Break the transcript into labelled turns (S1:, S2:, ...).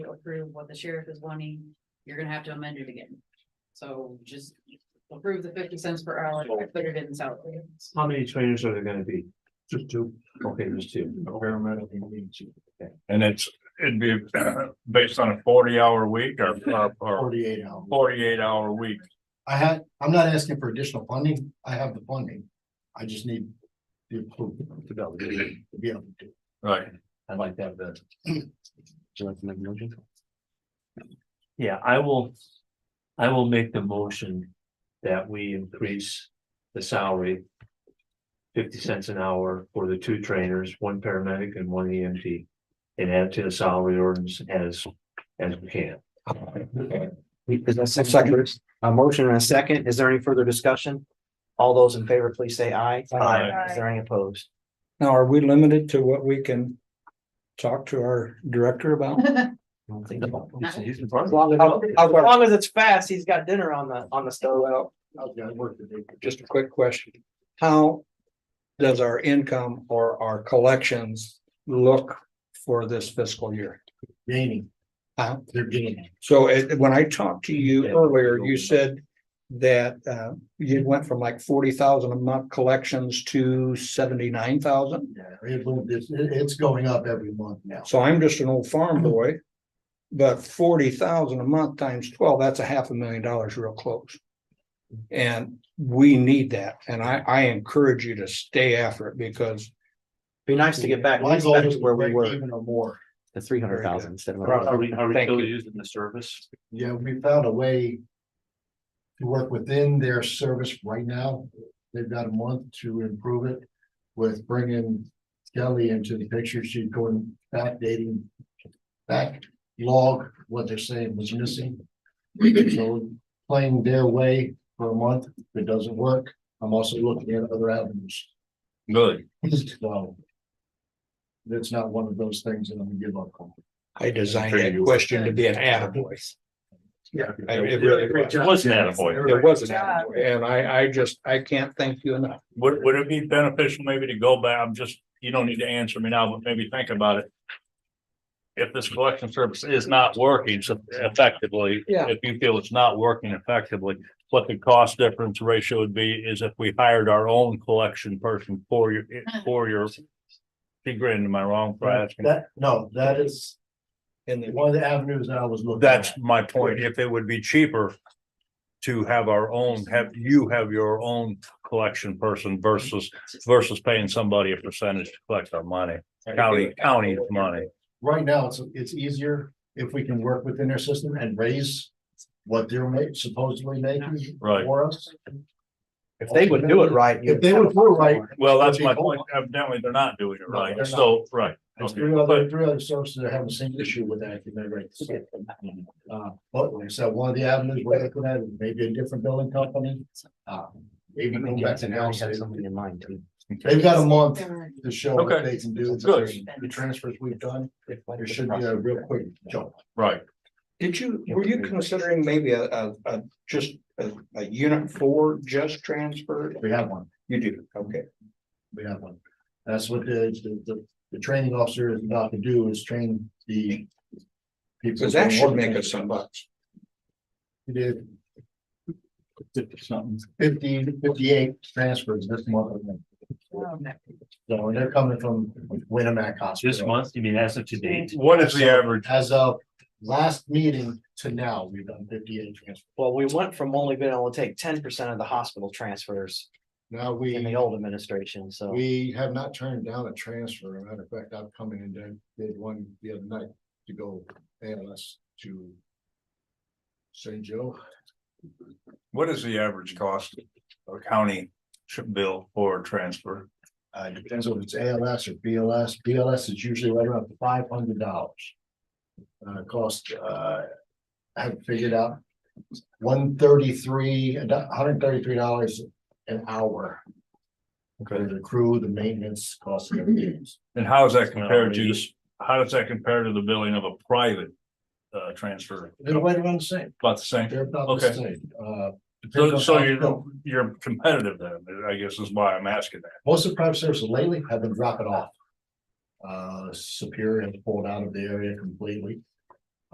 S1: approve what the sheriff is wanting, you're gonna have to amend it again. So just approve the fifty cents per hour, I put it in salary.
S2: How many trainers are there gonna be?
S3: Just two.
S2: Okay, there's two.
S3: And it's, it'd be based on a forty hour week or, or- or
S4: Forty-eight hours.
S3: forty-eight hour week.
S4: I had, I'm not asking for additional funding. I have the funding. I just need the approval
S2: To go.
S4: to be able to do. it.
S3: Right.
S2: I'd like to have that.
S5: you like to make a motion?
S2: Yeah, I will, I will make the motion that we increase the salary. Fifty cents an hour for the two trainers, one paramedic and one EMT. And add to the salary ordinance as, as we can.
S5: Is that a second? A motion and a second. Is there any further discussion? All those in favor, please say aye.
S2: Aye.
S5: Is there any opposed?
S6: Now, are we limited to what we can talk to our director about?
S5: I don't think so. As
S2: As
S5: long as,
S6: I'll-
S5: as
S6: I'll work.
S5: long as it's fast, he's got dinner on the, on the stove.
S6: Well,
S4: I've got to work the day.
S6: just a quick question. How does our income or our collections look for this fiscal year?
S4: Gaining.
S6: Huh?
S4: They're gaining.
S6: So it, when I talked to you
S2: Yeah.
S6: earlier, you said that uh you went from like forty thousand a month collections to seventy-nine thousand.
S4: Yeah, it will- it's, it- it's going up every month now.
S6: So I'm just an old farm boy. But forty thousand a month times twelve, that's a half a million dollars real close. And we need that, and I I encourage you to stay after it because
S5: Be nice to get back,
S4: My
S5: back
S4: goal is
S5: to
S4: to
S5: where we
S4: break
S5: were,
S4: Even or more.
S5: the three hundred thousand instead of.
S2: Are we, are we
S6: Thank
S2: still
S6: you.
S2: using the service?
S4: Yeah, we found a way. To work within their service right now. They've got a month to improve it. With bringing Kelly into the picture, she's going backdating. Back log what they're saying was missing. So playing their way for a month, if it doesn't work, I'm also looking at other avenues.
S3: Good.
S4: So. That's not one of those things that I'm gonna give up on.
S6: I designed that question to be an attaboy.
S4: Yeah.
S6: I- It really was.
S3: It wasn't that point.
S6: It was an attaboy, and I, I just, I can't thank you enough.
S3: Would, would it be beneficial maybe to go back? I'm just, you don't need to answer me now, but maybe think about it. If this collection service is not working so effectively.
S6: Yeah.
S3: If you feel it's not working effectively, what the cost difference ratio would be is if we hired our own collection person for your, for your.
S6: Mm.
S3: She grinned, am I wrong for asking?
S4: That, no, that is
S6: And the-
S4: one of the avenues that I was looking. at.
S3: That's my point. If it would be cheaper to have our own, have you have your own collection person versus versus paying somebody a percentage to collect our money, county, county's money.
S4: Right now, it's, it's easier if we can work within their system and raise what they're ma- supposedly making
S3: Right.
S4: for us.
S5: If they would do it right. you
S4: If they would do it right,
S3: Well, that's my point. Evidently, they're not doing it right. So, right.
S4: there's
S3: Okay.
S4: three other, three other services that have the same issue with that, can they rate?
S3: Mm-hmm.
S4: Uh, but like I said, one of the avenues we're looking at, is maybe a different building company, uh, maybe
S5: I
S4: go
S5: mean,
S4: back to
S5: Jackson
S4: now.
S5: already has somebody in mind too.
S4: They've got a month to show what
S3: Okay.
S4: they can do.
S3: Good.
S4: The transfers we've done, there should be a real quick jump.
S3: Right.
S6: Did you, were you considering maybe a, a, a, just a, a unit four just transferred?
S4: We have one.
S6: You do, okay.
S4: We have one. That's what the, the, the, the training officer is about to do is train the. people
S6: Cause that should make us some bucks.
S4: We did fifty, fifty-eight transfers this month.
S1: Um,
S4: So and they're coming from Winnemac Hospital.
S2: This month, you mean as of today?
S3: What is the average?
S4: As of last meeting to now, we've done fifty-eight transfers.
S5: Well, we went from only being able to take ten percent of the hospital transfers
S4: Now
S5: in the
S4: we,
S5: old administration, so.
S4: we have not turned down a transfer. As a matter of fact, I've come in and done, did one the other night to go ALS to St. Joe.
S3: What is the average cost of county bill for transfer?
S4: Uh, it depends on if it's ALS or BLS. BLS is usually right around five hundred dollars. Uh, cost, uh, I haven't figured out, one thirty-three, hundred thirty-three dollars an hour. For the crew, the maintenance costs. and everything.
S3: And how is that compared to, how does that compare to the billing of a private uh transfer?
S4: They're right around the same.
S3: About the same?
S4: They're about the
S3: Okay.
S4: same. Uh, depends
S3: So,
S4: on
S3: so
S4: how-
S3: you're, you're competitive then, I guess is why I'm asking that.
S4: Most of the private services lately have been dropping off. Uh, Superior has pulled out of the area completely.